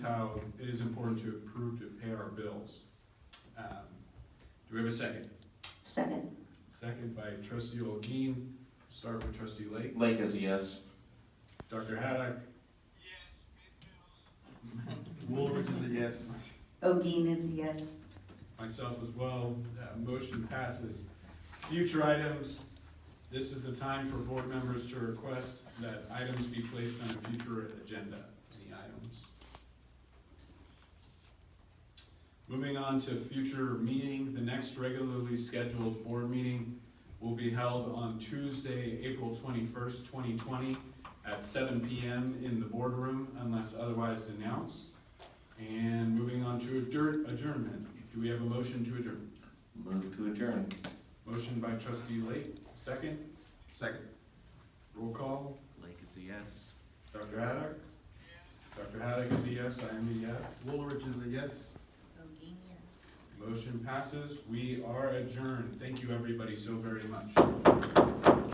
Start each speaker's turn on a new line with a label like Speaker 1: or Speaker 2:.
Speaker 1: it is important to approve to pay our bills. Um, Do we have a second?
Speaker 2: Second.
Speaker 1: Second by trustee Olguin, start with trustee Lake.
Speaker 3: Lake is a yes.
Speaker 1: Dr. Haddock,
Speaker 4: Woolridge is a yes.
Speaker 2: Odine is a yes.
Speaker 1: myself as well, Uh, motion passes. Future items, this is the time for board members to request that items be placed on a future agenda, any items. Moving on to future meeting, the next regularly scheduled board meeting will be held on Tuesday, April twenty-first, twenty twenty, at seven PM in the boardroom unless otherwise announced. And moving on to adjourn, adjournment, do we have a motion to adjourn?
Speaker 3: Move to adjourn.
Speaker 1: Motion by trustee Lake, second,
Speaker 4: Second.
Speaker 1: roll call,
Speaker 3: Lake is a yes.
Speaker 1: Dr. Haddock? Dr. Haddock is a yes, I am a yes.
Speaker 4: Woolridge is a yes.
Speaker 2: Odine, yes.
Speaker 1: Motion passes, we are adjourned, thank you everybody so very much.